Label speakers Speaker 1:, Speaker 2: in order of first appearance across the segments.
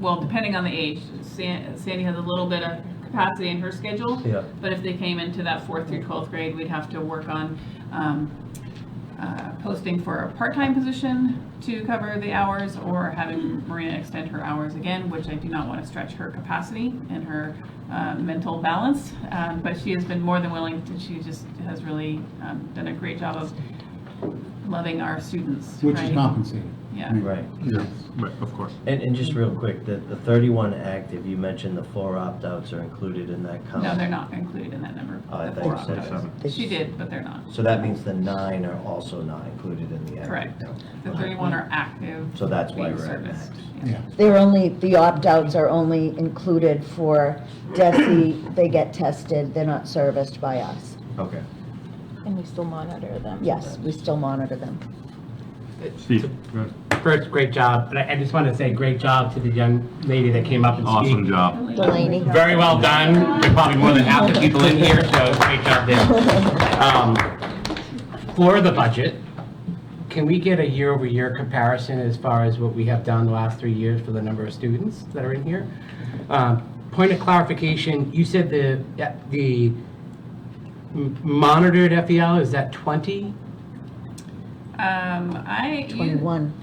Speaker 1: well, depending on the age, San- Sandy has a little bit of capacity in her schedule.
Speaker 2: Yeah.
Speaker 1: But if they came into that fourth through 12th grade, we'd have to work on um, uh, posting for a part-time position to cover the hours or having Marina extend her hours again, which I do not want to stretch her capacity and her uh, mental balance. Um, But she has been more than willing, to she just has really um, done a great job of loving our students.
Speaker 3: Which is
Speaker 1: right?
Speaker 3: compensated.
Speaker 1: Yeah.
Speaker 2: Right.
Speaker 4: Yeah, right, of course.
Speaker 2: And, and just real quick, the, the 31 active, you mentioned the four opt-outs are included in that count.
Speaker 1: No, they're not included in that number.
Speaker 2: Oh, Um, I
Speaker 1: the
Speaker 2: thought
Speaker 1: four
Speaker 2: you said
Speaker 1: opt-outs.
Speaker 4: seven.
Speaker 1: She did, but they're not.
Speaker 2: So that means the nine are also not included in the active
Speaker 1: Correct.
Speaker 2: count.
Speaker 1: The 31 are active.
Speaker 2: So that's why
Speaker 1: being
Speaker 2: we're at
Speaker 1: serviced.
Speaker 2: max.
Speaker 1: Yeah.
Speaker 3: Yeah.
Speaker 5: They're only, the opt-outs are only included for DESI, they get tested, they're not serviced by us.
Speaker 2: Okay.
Speaker 6: And we still monitor them.
Speaker 5: Yes, we still monitor them.
Speaker 4: Steve, go ahead.
Speaker 7: First, great job, but I I just want to say great job to the young lady that came up and spoke.
Speaker 4: awesome job.
Speaker 5: Delaney?
Speaker 7: Very well done. There's probably more than half the people in here, so great job there. Um, For the budget, can we get a year-over-year comparison as far as what we have done the last three years for the number of students that are in here? Um, Point of clarification, you said the, uh, the m- monitored FEL, is that 20?
Speaker 1: Um, I, you,
Speaker 5: 21,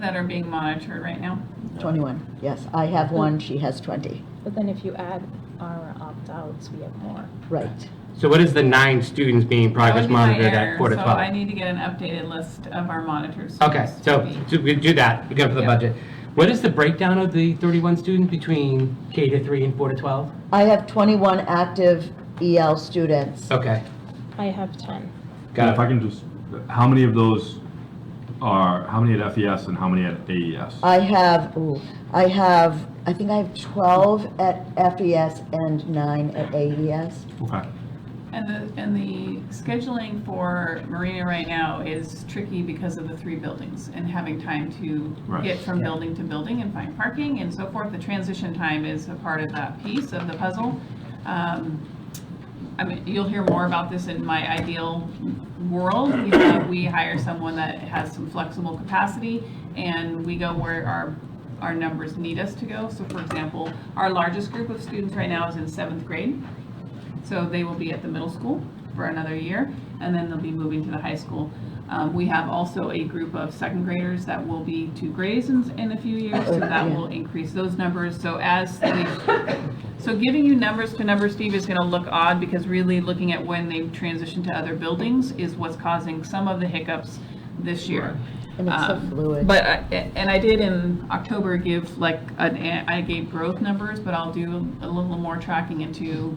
Speaker 1: that are being monitored right now.
Speaker 5: 21, yes, I have one, she has 20,
Speaker 6: But then if you add our opt-outs, we have more.
Speaker 5: right.
Speaker 7: So what is the nine students being
Speaker 1: That
Speaker 7: progress
Speaker 1: would be my
Speaker 7: monitored
Speaker 1: error,
Speaker 7: at quarter
Speaker 1: So
Speaker 7: 12?
Speaker 1: I need to get an updated list of our monitors.
Speaker 7: Okay, so so we do that, we go for the
Speaker 1: Yeah.
Speaker 7: budget. What is the breakdown of the 31 students between K to 3 and 4 to 12?
Speaker 5: I have 21 active EL students.
Speaker 7: Okay,
Speaker 6: I have 10.
Speaker 4: Yeah,
Speaker 7: got
Speaker 4: if I
Speaker 7: it.
Speaker 4: can just, how many of those are, how many at FES and how many at E AES?
Speaker 5: I have, ooh, I have, I think I have 12 at FES and nine at E AES.
Speaker 4: Okay.
Speaker 1: And the, and the scheduling for Marina right now is tricky because of the three buildings and having time to
Speaker 4: Right.
Speaker 1: get from
Speaker 5: Yeah.
Speaker 1: building to building and find parking and so forth. The transition time is a part of that piece of the puzzle. Um, I mean, you'll hear more about this in my ideal world. You know, we hire someone that has some flexible capacity and we go where our, our numbers need us to go. So for example, our largest group of students right now is in seventh grade. So they will be at the middle school for another year, and then they'll be moving to the high school. Um, we have also a group of second graders that will be to grades in, in a few years, so that will increase those numbers. So as the, so giving you numbers to numbers, Steve, is gonna look odd because really looking at when they've transitioned to other buildings is what's causing some of the hiccups this year.
Speaker 5: And it's so
Speaker 1: Um,
Speaker 5: fluid.
Speaker 1: But, I- and I did in October give like, an I gave growth numbers, but I'll do a little more tracking into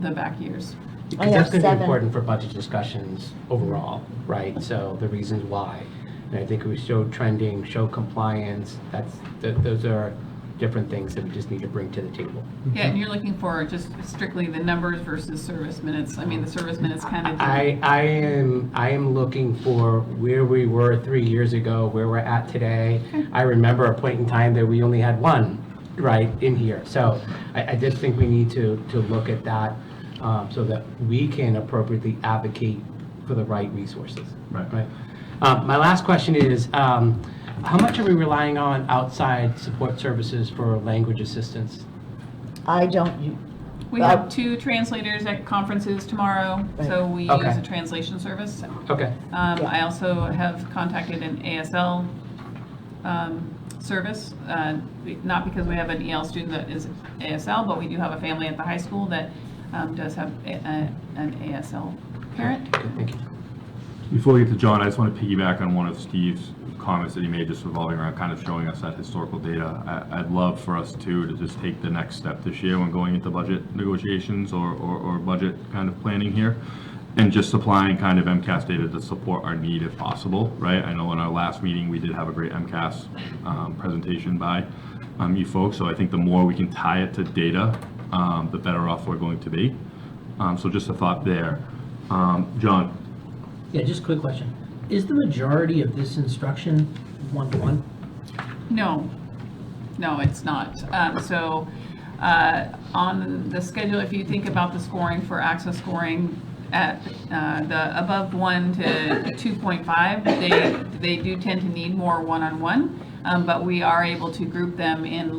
Speaker 1: the back years.
Speaker 5: I
Speaker 7: Because
Speaker 5: have
Speaker 7: that's going to
Speaker 5: seven.
Speaker 7: be important for budget discussions overall, right? So the reasons why. And I think we show trending, show compliance, that's, th- those are different things that we just need to bring to the table.
Speaker 1: Yeah, and you're looking for just strictly the numbers versus service minutes. I mean, the service minutes kind of.
Speaker 7: I, I am, I am looking for where we were three years ago, where we're at today. I remember a point in time that we only had one, right, in here. So I, I just think we need to, to look at that um, so that we can appropriately advocate for the right resources.
Speaker 4: Right.
Speaker 7: Uh, My last question is, um, how much are we relying on outside support services for language assistance?
Speaker 5: I don't, u-
Speaker 1: We
Speaker 7: uh,
Speaker 1: have two translators at conferences tomorrow, so we
Speaker 7: Okay.
Speaker 1: use a translation service. Um,
Speaker 7: Okay,
Speaker 1: I also have contacted an ASL um, service, uh, be- not because we have an EL student that is ASL, but we do have a family at the high school that um, does have a- a- an ASL parent.
Speaker 7: good, thank you.
Speaker 4: Before we get to John, I just want to piggyback on one of Steve's comments that he made just revolving around kind of showing us that historical data. I, I'd love for us too to just take the next step this year when going into budget negotiations or, or, or budget kind of planning here. And just supplying kind of MCAS data to support our need if possible, right? I know in our last meeting, we did have a great MCAS, um, presentation by, um, you folks. So I think the more we can tie it to data, um, the better off we're going to be. Um, so just a thought there. Um, John,
Speaker 8: Yeah, just a quick question. Is the majority of this instruction one-to-one?
Speaker 1: No, no, it's not. Um, So uh, on the schedule, if you think about the scoring for access scoring at uh, the above one to 2.5, they, they do tend to need more one-on-one, um, but we are able to group them in